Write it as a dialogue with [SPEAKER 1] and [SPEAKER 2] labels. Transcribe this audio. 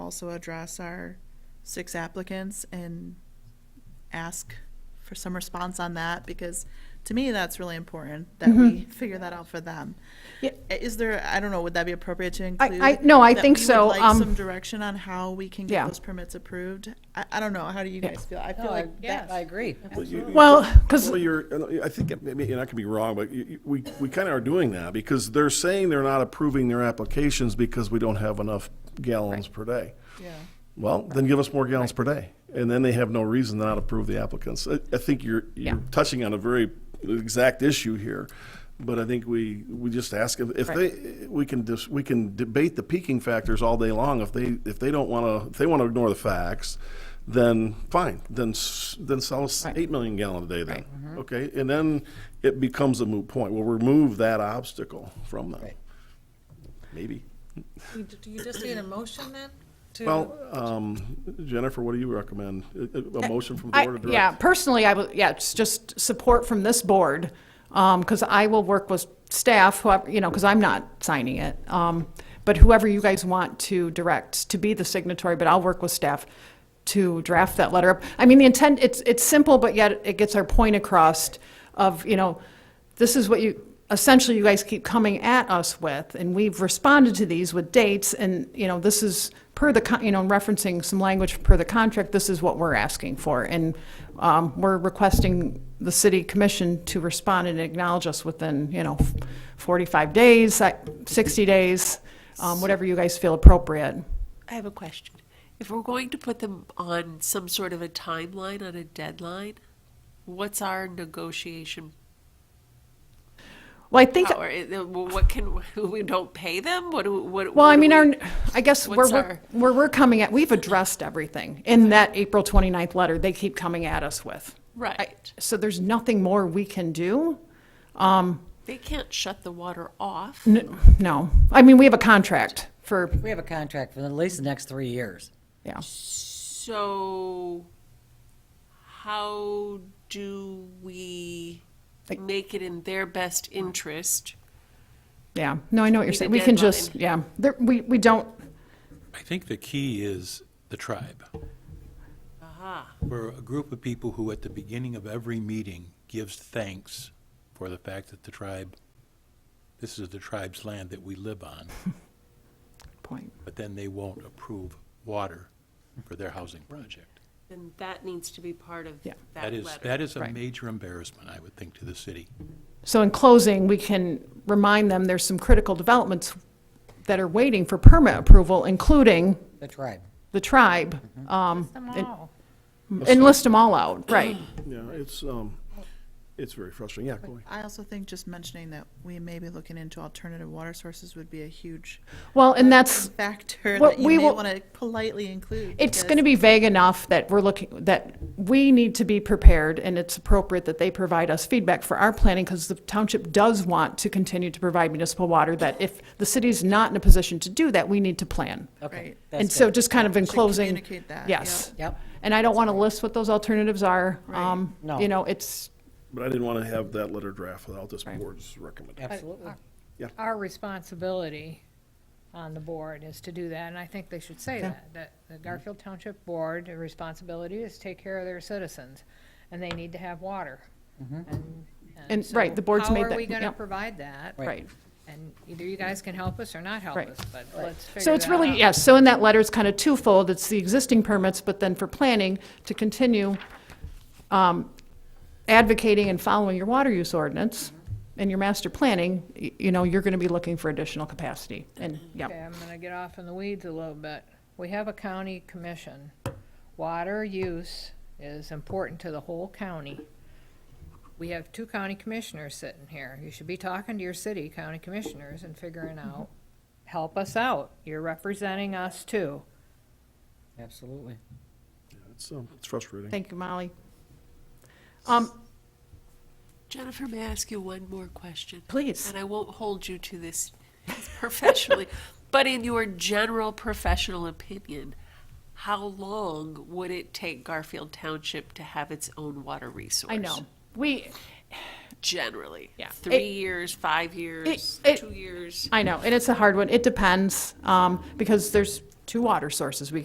[SPEAKER 1] also address our six applicants and ask for some response on that, because to me, that's really important, that we figure that out for them.
[SPEAKER 2] Mm-hmm. Yeah.
[SPEAKER 1] I- Is there, I don't know, would that be appropriate to
[SPEAKER 2] I-
[SPEAKER 1] include?
[SPEAKER 2] I- no, I
[SPEAKER 1] that
[SPEAKER 2] think
[SPEAKER 1] we would
[SPEAKER 2] so,
[SPEAKER 1] like
[SPEAKER 2] um,
[SPEAKER 1] some direction on how we can get
[SPEAKER 2] Yeah.
[SPEAKER 1] those permits approved? I, I don't know, how do you guys feel? I feel
[SPEAKER 3] No, I-
[SPEAKER 1] like
[SPEAKER 3] that- I
[SPEAKER 1] that,
[SPEAKER 3] agree.
[SPEAKER 4] Well, you- you-
[SPEAKER 2] Well, 'cause-
[SPEAKER 4] Well, you're, I think, I mean, and I could be wrong, but you- you- we, we kind of are doing that because they're saying they're not approving their applications because we don't have enough gallons per day.
[SPEAKER 1] yeah.
[SPEAKER 4] Well, then give us more gallons per day. And then they have no reason not to approve the applicants. I, I think you're,
[SPEAKER 2] Yeah.
[SPEAKER 4] you're touching on a very exact issue here. But I think we, we just ask if, if they, we can just, we can debate the peaking factors all day long. If they, if they don't want to, if they want to ignore the facts, then fine, then, s- then sell us eight million gallon a day then. Okay, and then it becomes a moot point. We'll remove that obstacle from them. Maybe.
[SPEAKER 5] You d- You just need a motion then? to-
[SPEAKER 4] Well, um, Jennifer, what do you recommend? A- A a motion from the
[SPEAKER 2] Uh, I-
[SPEAKER 4] board of
[SPEAKER 2] Yeah,
[SPEAKER 4] directors?
[SPEAKER 2] personally, I would, yeah, it's just support from this board, because I will work with staff, whoever, you know, because I'm not signing it. um, But whoever you guys want to direct to be the signatory, but I'll work with staff to draft that letter. up. I mean, the intent, it's, it's simple, but yet it gets our point across of, you know, this is what you, essentially you guys keep coming at us with, and we've responded to these with dates, and, you know, this is per the, con- you know, referencing some language per the contract, this is what we're asking for. And um, we're requesting the city commission to respond and acknowledge us within, you know, 45 days, I- 60 days, um, whatever you guys feel appropriate.
[SPEAKER 6] I have a question. If we're going to put them on some sort of a timeline, on a deadline, what's our negotiation
[SPEAKER 2] Well, I think,
[SPEAKER 6] power? Is- uh, well, What can, we don't pay them? What do, what?
[SPEAKER 2] well, I
[SPEAKER 6] what do
[SPEAKER 2] mean,
[SPEAKER 6] we-
[SPEAKER 2] our, I guess where
[SPEAKER 6] What's
[SPEAKER 2] we're,
[SPEAKER 6] our-
[SPEAKER 2] where we're coming at, we've addressed everything in that April 29th letter they keep coming at us with. I-
[SPEAKER 6] Right.
[SPEAKER 2] So there's nothing more we can do?
[SPEAKER 6] They can't shut the water off.
[SPEAKER 2] N- No. I mean, we have a contract for,
[SPEAKER 3] We have a contract for at least the next three years.
[SPEAKER 2] yeah.
[SPEAKER 6] So how do we
[SPEAKER 2] Like-
[SPEAKER 6] make it in their best interest?
[SPEAKER 2] Yeah, no, I know what you're
[SPEAKER 6] Need a
[SPEAKER 2] saying. We can
[SPEAKER 6] deadline.
[SPEAKER 2] just, yeah, there, we, we don't,
[SPEAKER 7] I think the key is the tribe.
[SPEAKER 6] Uh-huh.
[SPEAKER 7] We're a group of people who, at the beginning of every meeting, gives thanks for the fact that the tribe, this is the tribe's land that we live on,
[SPEAKER 2] point,
[SPEAKER 7] but then they won't approve water for their housing project.
[SPEAKER 6] Then that needs to be part of
[SPEAKER 2] Yeah.
[SPEAKER 6] that
[SPEAKER 7] That is,
[SPEAKER 6] letter.
[SPEAKER 7] that is a
[SPEAKER 2] Right.
[SPEAKER 7] major embarrassment, I would think, to the city.
[SPEAKER 2] So in closing, we can remind them there's some critical developments that are waiting for permit approval, including
[SPEAKER 3] The tribe.
[SPEAKER 2] the tribe. um, and- And list them all out, right.
[SPEAKER 4] Yeah, it's, um, it's very frustrating. Yeah, go ahead.
[SPEAKER 1] I also think just mentioning that we may be looking into alternative water sources would be a huge
[SPEAKER 2] Well, and that's,
[SPEAKER 1] factor
[SPEAKER 2] Well,
[SPEAKER 1] that you
[SPEAKER 2] we
[SPEAKER 1] may
[SPEAKER 2] will-
[SPEAKER 1] want to politely include.
[SPEAKER 2] It's
[SPEAKER 1] because-
[SPEAKER 2] going to be vague enough that we're looking, that we need to be prepared, and it's appropriate that they provide us feedback for our planning, because the township does want to continue to provide municipal water, that if the city's not in a position to do that, we need to plan.
[SPEAKER 3] Okay.
[SPEAKER 1] Right.
[SPEAKER 3] that's
[SPEAKER 2] And so
[SPEAKER 3] good.
[SPEAKER 2] just kind of in
[SPEAKER 1] Should
[SPEAKER 2] closing.
[SPEAKER 1] communicate that,
[SPEAKER 2] Yes.
[SPEAKER 3] yep. Yep.
[SPEAKER 2] And I don't want to list what those alternatives are.
[SPEAKER 1] Right.
[SPEAKER 2] um,
[SPEAKER 3] No.
[SPEAKER 2] You know, it's,
[SPEAKER 4] But I didn't want to have that letter draft without this board's recommendation.
[SPEAKER 3] Absolutely.
[SPEAKER 5] Our responsibility on the board is to do that, and I think they should say that, that the Garfield Township Board, their responsibility is to take care of their citizens, and they need to have water. And-
[SPEAKER 2] And,
[SPEAKER 5] so
[SPEAKER 2] right, the board's made
[SPEAKER 5] How
[SPEAKER 2] that-
[SPEAKER 5] are we going to
[SPEAKER 2] yep.
[SPEAKER 5] provide that?
[SPEAKER 2] right.
[SPEAKER 5] And either you guys can help us or not help
[SPEAKER 2] Right.
[SPEAKER 5] us, but let's figure that out.
[SPEAKER 2] So it's really, yes, so in that letter, it's kind of twofold. It's the existing permits, but then for planning, to continue um, advocating and following your water use ordinance and your master planning, y- you know, you're going to be looking for additional capacity. And,
[SPEAKER 5] Okay,
[SPEAKER 2] yeah,
[SPEAKER 5] I'm gonna get off in the weeds a little bit. We have a county commission. Water use is important to the whole county. We have two county commissioners sitting here. You should be talking to your city county commissioners and figuring out, help us out. You're representing us too.
[SPEAKER 3] Absolutely.
[SPEAKER 4] It's, um, it's frustrating.
[SPEAKER 2] thank you, Molly. Um,
[SPEAKER 6] Jennifer, may I ask you one more question?
[SPEAKER 2] Please.
[SPEAKER 6] And I won't hold you to this professionally, but in your general professional opinion, how long would it take Garfield Township to have its own water resource?
[SPEAKER 2] I know, we,
[SPEAKER 6] Generally.
[SPEAKER 2] Yeah.
[SPEAKER 6] Three
[SPEAKER 2] It-
[SPEAKER 6] years, five years,
[SPEAKER 2] it-
[SPEAKER 6] two years.
[SPEAKER 2] I know, and it's a hard one. It depends, um, because there's two water sources we